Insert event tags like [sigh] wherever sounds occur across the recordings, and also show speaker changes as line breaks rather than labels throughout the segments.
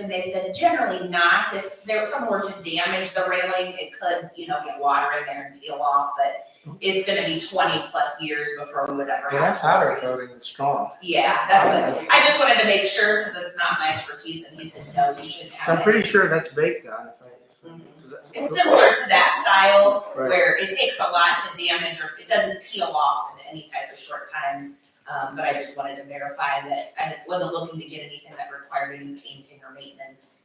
And they said generally not, if there was someone were to damage the railing, it could, you know, get water in there and peel off, but it's gonna be twenty plus years before we would ever have.
Yeah, that
to
powder
worry.
coating is strong.
Yeah, that's it, I just wanted to make sure, because it's not my expertise, and he said, no, you shouldn't
So
have
I'm
it.
pretty sure that's baked on. if I-
Mhm.
is that-
It's similar to that style,
Right.
where it takes a lot to damage, or it doesn't peel off in any type of short time. Um, but I just wanted to verify that I wasn't looking to get anything that required any painting or maintenance.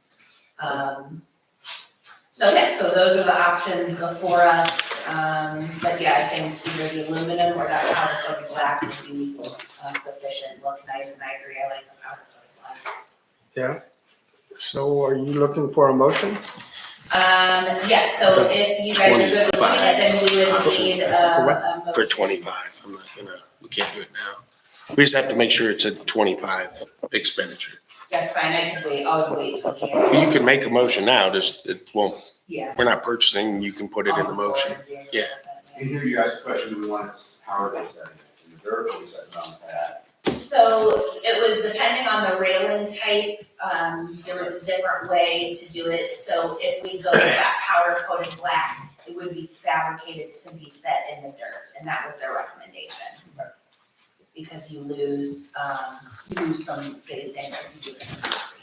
Um, so, yeah, so those are the options before us, um, but yeah, I think either the aluminum or that powder coated black would be uh, sufficient, look nice, and I agree, I like the powder coated black.
So are you looking for a motion?
Um, yes, so if you guys are good with doing it, then we would need uh,
For what?
a, a motion.
for twenty-five, I'm not gonna, we can't do it now. We just have to make sure it's a twenty-five expenditure.
That's fine, I can wait, I'll wait till
Well,
January.
You can make a motion now, just, it, well,
Yeah.
we're not purchasing, you can put it in the motion. Yeah.
And here you asked the question, do we want to, how are they setting it? And the vertical is set on that.
So it was depending on the railing type, um, there was a different way to do it. So if we go with that powder coated black, it would be fabricated to be set in the dirt, and that was their recommendation. Because you lose, um, you lose some spacing if you do it in concrete.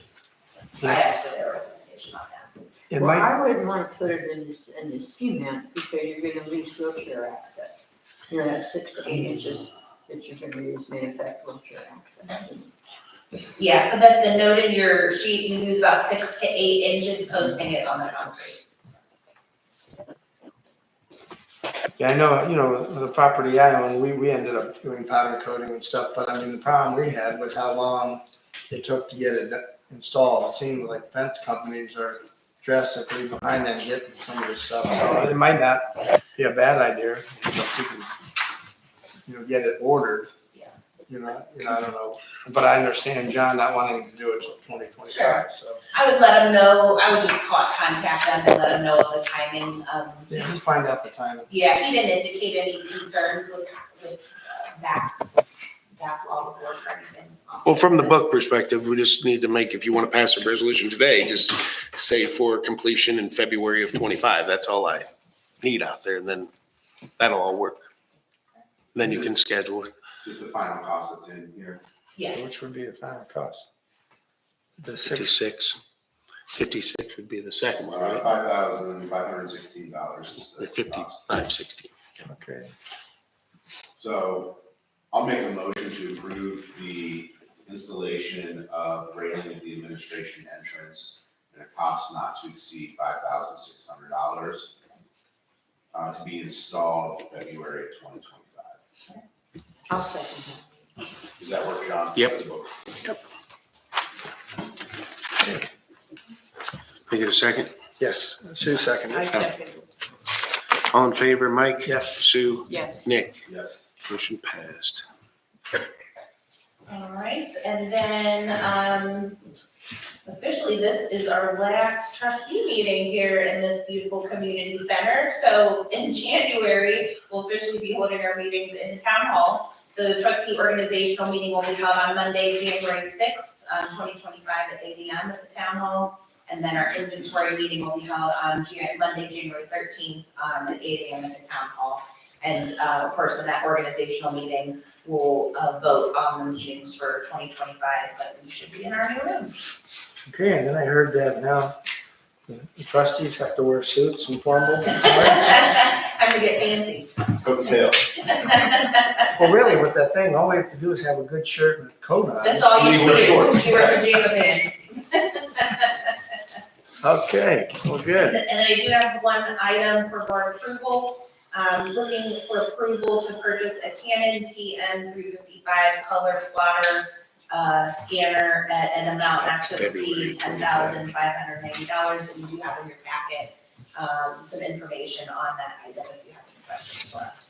I asked for their recommendation on that.
It
Well,
might,
I wouldn't want to put it in the, in the cement because you're gonna lose wheelchair access. You know, that six to eight inches that you're gonna lose may affect wheelchair access.
Yeah, so then the note in your sheet, you lose about six to eight inches posting it on the concrete.
yeah, I know, uh, you know, the property I own, we, we ended up doing powder coating and stuff, but I mean, the problem we had was how long it took to get it installed. It seemed like fence companies are drastically behind on getting some of this stuff, so it might not be a bad idea. if you can, You know, get it ordered.
Yeah.
You know, you know, I don't know, but I understand John not wanting to do it till twenty twenty-five, so.
I would let them know, I would just call, contact them and let them know of the timing, um,
Yeah, just find out the timing.
yeah, he didn't indicate any concerns with, with uh, back, backlog of work or anything.
Well, from the book perspective, we just need to make, if you want to pass a resolution today, just say for completion in February of twenty-five, that's all I need out there, and then that'll all work. Then you can schedule it.
It's just the final cost that's in here.
Yes,
Which would be the final cost? The six,
Fifty-six. Fifty-six would be the second one,
Five
right?
thousand five hundred sixteen dollars is the cost.
Fifty-five, sixty.
okay.
So I'll make a motion to approve the installation of railing at the administration entrance at a cost not to exceed five thousand six hundred dollars uh, to be installed February of twenty twenty-five.
I'll second
Does that work, John?
Yep. Can I get a second?
Yes, Sue
that. I
seconded.
second,
All in favor, Mike?
Yes.
Sue?
yes.
Nick?
Yes.
Motion passed.
all right, and then, um, officially, this is our last trustee meeting here in this beautiful community center. So in January, we'll officially be holding our meetings in the town hall. So the trustee organizational meeting will be held on Monday, January sixth, um, twenty twenty-five at eight AM at the town hall. And then our inventory meeting will be held on Jan- Monday, January thirteenth, um, at eight AM at the town hall. And, uh, of course, in that organizational meeting, we'll, uh, vote on the meetings for twenty twenty-five, but we should be in our new [laughs] room.
Okay, and then I heard that now the trustees have to wear suits and formal.
[laughs] I'm gonna get fancy.
Coattail.
Well, really, with that thing, all we have to do is have a good shirt and a coat on.
That's all you
You wear shorts.
see, you wear pajama pants.
Okay, well, good.
And I do have one item for board approval. Um, looking for approval to purchase a Canon TM three fifty-five color plotter, uh, scanner at an amount not to
February
exceed ten
25.
thousand five hundred ninety dollars. And you do have in your packet, um, some information on that item if you have any questions for us.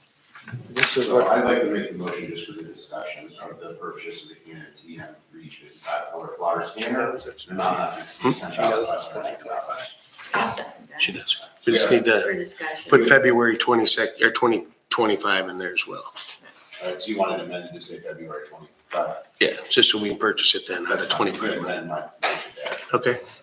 This is
So
what,
I'd like to make a motion just for the discussion of the purchase of the Canon TM three fifty-five color plotter scanner. And not not to exceed ten thousand five hundred dollars.
I'll second
She
that.
does. We just need to
For discussion.
put February twenty-second, or twenty twenty-five in there as well.
Uh, All right, so you wanted amended to say February twenty uh, but.
Yeah, just so we can purchase it then, out of
that's not-
25
That might-
Okay.